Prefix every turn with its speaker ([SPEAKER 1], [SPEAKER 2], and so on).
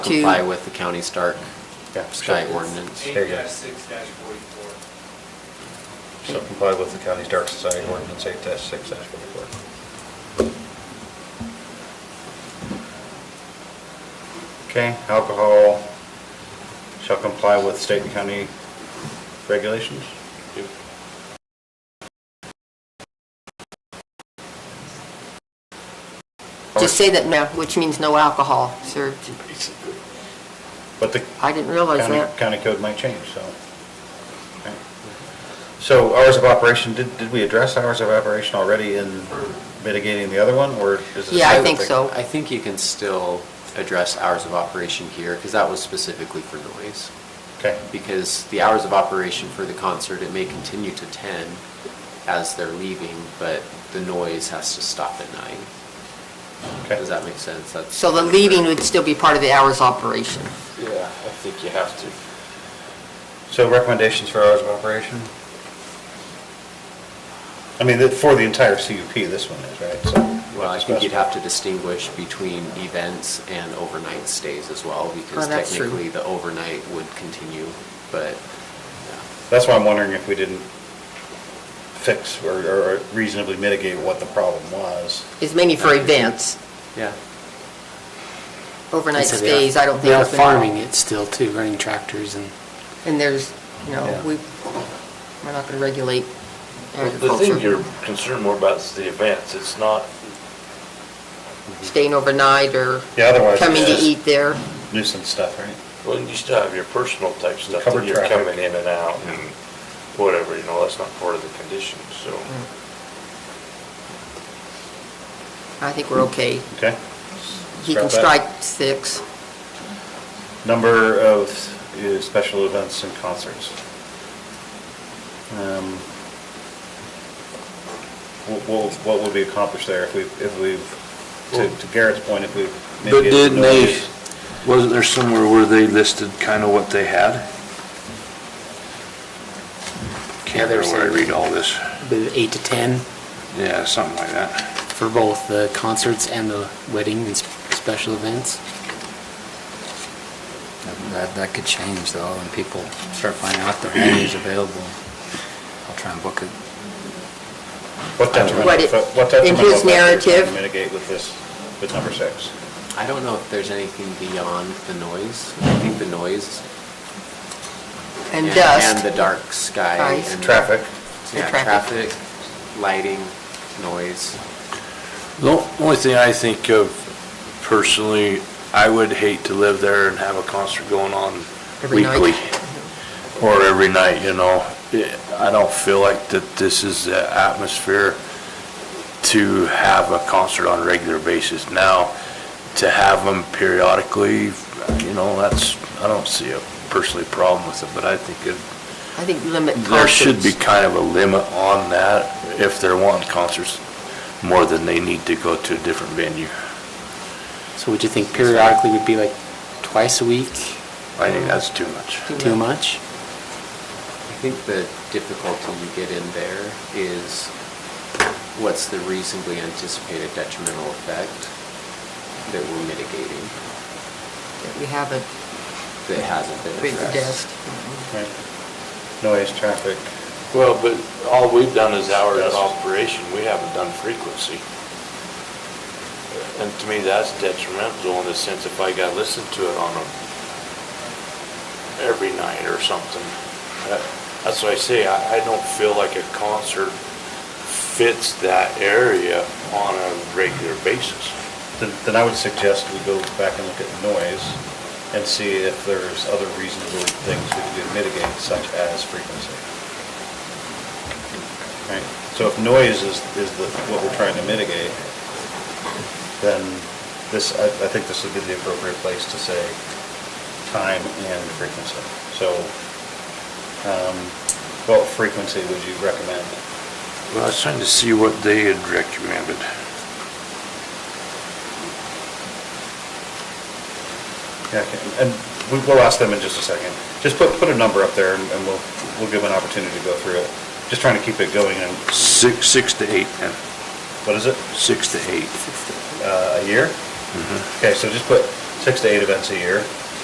[SPEAKER 1] comply with the county Stark
[SPEAKER 2] Yeah,
[SPEAKER 1] sky
[SPEAKER 2] so-
[SPEAKER 1] ordinance.
[SPEAKER 2] There you go.
[SPEAKER 3] six dash forty-four.
[SPEAKER 2] So comply with the county's dark society ordinance eight six forty-four. Okay, alcohol shall comply with state and county regulations?
[SPEAKER 4] Just say that, no, which means no alcohol served.
[SPEAKER 2] But the
[SPEAKER 4] I didn't realize
[SPEAKER 2] county,
[SPEAKER 4] that.
[SPEAKER 2] county code might change, so. okay. So hours of operation, did, did we address hours of operation already in mitigating the other one, or is this?
[SPEAKER 4] Yeah, I
[SPEAKER 2] new?
[SPEAKER 4] think so.
[SPEAKER 1] I think you can still address hours of operation here, because that was specifically for noise.
[SPEAKER 2] Okay.
[SPEAKER 1] Because the hours of operation for the concert, it may continue to ten as they're leaving, but the noise has to stop at nine.
[SPEAKER 2] Okay.
[SPEAKER 1] Does that make sense? That's.
[SPEAKER 4] So the leaving would still be part of the hours operation.
[SPEAKER 5] Yeah, I think you have to.
[SPEAKER 2] So recommendations for hours of operation? I mean, that- for the entire CUP, this one is, right? So-
[SPEAKER 1] Well, I think you'd have to distinguish between events and overnight stays as well, because
[SPEAKER 4] Oh, that's true.
[SPEAKER 1] technically the overnight would continue, but,
[SPEAKER 2] That's why I'm wondering if we didn't fix or- or reasonably mitigate what the problem was.
[SPEAKER 4] It's mainly for events,
[SPEAKER 1] yeah.
[SPEAKER 4] overnight
[SPEAKER 6] So they are-
[SPEAKER 4] stays, I don't think.
[SPEAKER 6] They are
[SPEAKER 4] it's been-
[SPEAKER 6] farming it still too, running tractors and,
[SPEAKER 4] And there's, you know,
[SPEAKER 2] Yeah.
[SPEAKER 4] we, we're not going to regulate
[SPEAKER 5] The thing you're
[SPEAKER 4] agriculture.
[SPEAKER 5] concerned more about is the events, it's not,
[SPEAKER 4] Staying overnight or
[SPEAKER 2] Yeah, otherwise
[SPEAKER 4] coming to
[SPEAKER 2] it's
[SPEAKER 4] eat there.
[SPEAKER 2] just nuisance stuff, right?
[SPEAKER 5] well, you still have your personal type stuff
[SPEAKER 2] Covered
[SPEAKER 5] that you're
[SPEAKER 2] traffic.
[SPEAKER 5] coming in and out and whatever, you know, that's not part of the condition, so.
[SPEAKER 4] I think we're okay.
[SPEAKER 2] Okay?
[SPEAKER 4] You can
[SPEAKER 2] Scrap
[SPEAKER 4] strike
[SPEAKER 2] that.
[SPEAKER 4] six.
[SPEAKER 2] Number of uh, special events and concerts. Um, wh- wh- What would we accomplish there if we, if we've, to- to Garrett's point, if we've.
[SPEAKER 7] But
[SPEAKER 2] mitigated the
[SPEAKER 7] didn't they,
[SPEAKER 2] noise?
[SPEAKER 7] wasn't there somewhere where they listed kind of what they had?
[SPEAKER 6] Yeah,
[SPEAKER 7] Can't
[SPEAKER 6] they were
[SPEAKER 7] remember where I
[SPEAKER 6] saying-
[SPEAKER 7] read all this.
[SPEAKER 6] the eight to 10
[SPEAKER 7] Yeah, something like that.
[SPEAKER 6] for both the concerts and the wedding and s- special events.
[SPEAKER 8] That, that could change though, and people start finding out the venue's available. I'll try and book it.
[SPEAKER 2] What
[SPEAKER 4] What
[SPEAKER 2] detrimental,
[SPEAKER 4] it-
[SPEAKER 2] fa- what detrimental
[SPEAKER 4] in his
[SPEAKER 2] factors can
[SPEAKER 4] narrative-
[SPEAKER 2] we mitigate with this, with number six?
[SPEAKER 1] I don't know if there's anything beyond the noise. I think the noise.
[SPEAKER 4] And dust.
[SPEAKER 1] And the dark sky.
[SPEAKER 4] Ice.
[SPEAKER 1] and-
[SPEAKER 2] Traffic.
[SPEAKER 1] Yeah,
[SPEAKER 4] And traffic.
[SPEAKER 1] traffic, lighting, noise.
[SPEAKER 7] The only thing I think of personally, I would hate to live there and have a concert going on
[SPEAKER 4] Every night.
[SPEAKER 7] weekly. Or every night, you know. Yeah, I don't feel like that this is the atmosphere to have a concert on a regular basis. Now, to have them periodically, you know, that's, I don't see a personally problem with it, but I think it-
[SPEAKER 4] I think limit concerts.
[SPEAKER 7] there should be kind of a limit on that if they're wanting concerts more than they need to go to a different venue.
[SPEAKER 6] So would you think periodically would be like twice a week,
[SPEAKER 7] I think that's too much.
[SPEAKER 6] too much?
[SPEAKER 1] I think the difficulty you get in there is what's the reasonably anticipated detrimental effect that we're mitigating
[SPEAKER 4] that We have a
[SPEAKER 1] that hasn't been
[SPEAKER 4] big
[SPEAKER 1] addressed.
[SPEAKER 4] dust.
[SPEAKER 2] Right. Noise, traffic.
[SPEAKER 5] Well, but all we've done is hours
[SPEAKER 2] of
[SPEAKER 5] of operation, we haven't done frequency. And to me, that's detrimental in the sense if I got listened to it on a, every night or something. That- That's what I say, I, I don't feel like a concert fits that area on a regular basis.
[SPEAKER 2] Then then I would suggest we go back and look at noise and see if there's other reasonable things we could mitigate such as frequency. Right, so if noise is, is the, what we're trying to mitigate, then this, I, I think this would be the appropriate place to say time and frequency. So, um, what frequency would you recommend?
[SPEAKER 7] Well, I was trying to see what they had recommended.
[SPEAKER 2] Yeah, okay. and we, we'll ask them in just a second. Just put, put a number up there and and we'll, we'll give them an opportunity to go through it. Just trying to keep it going and,
[SPEAKER 7] Six, six to eight, then.
[SPEAKER 2] what is it,
[SPEAKER 7] Six to eight.
[SPEAKER 2] uh, a year? Okay, so just put six to eight events a year.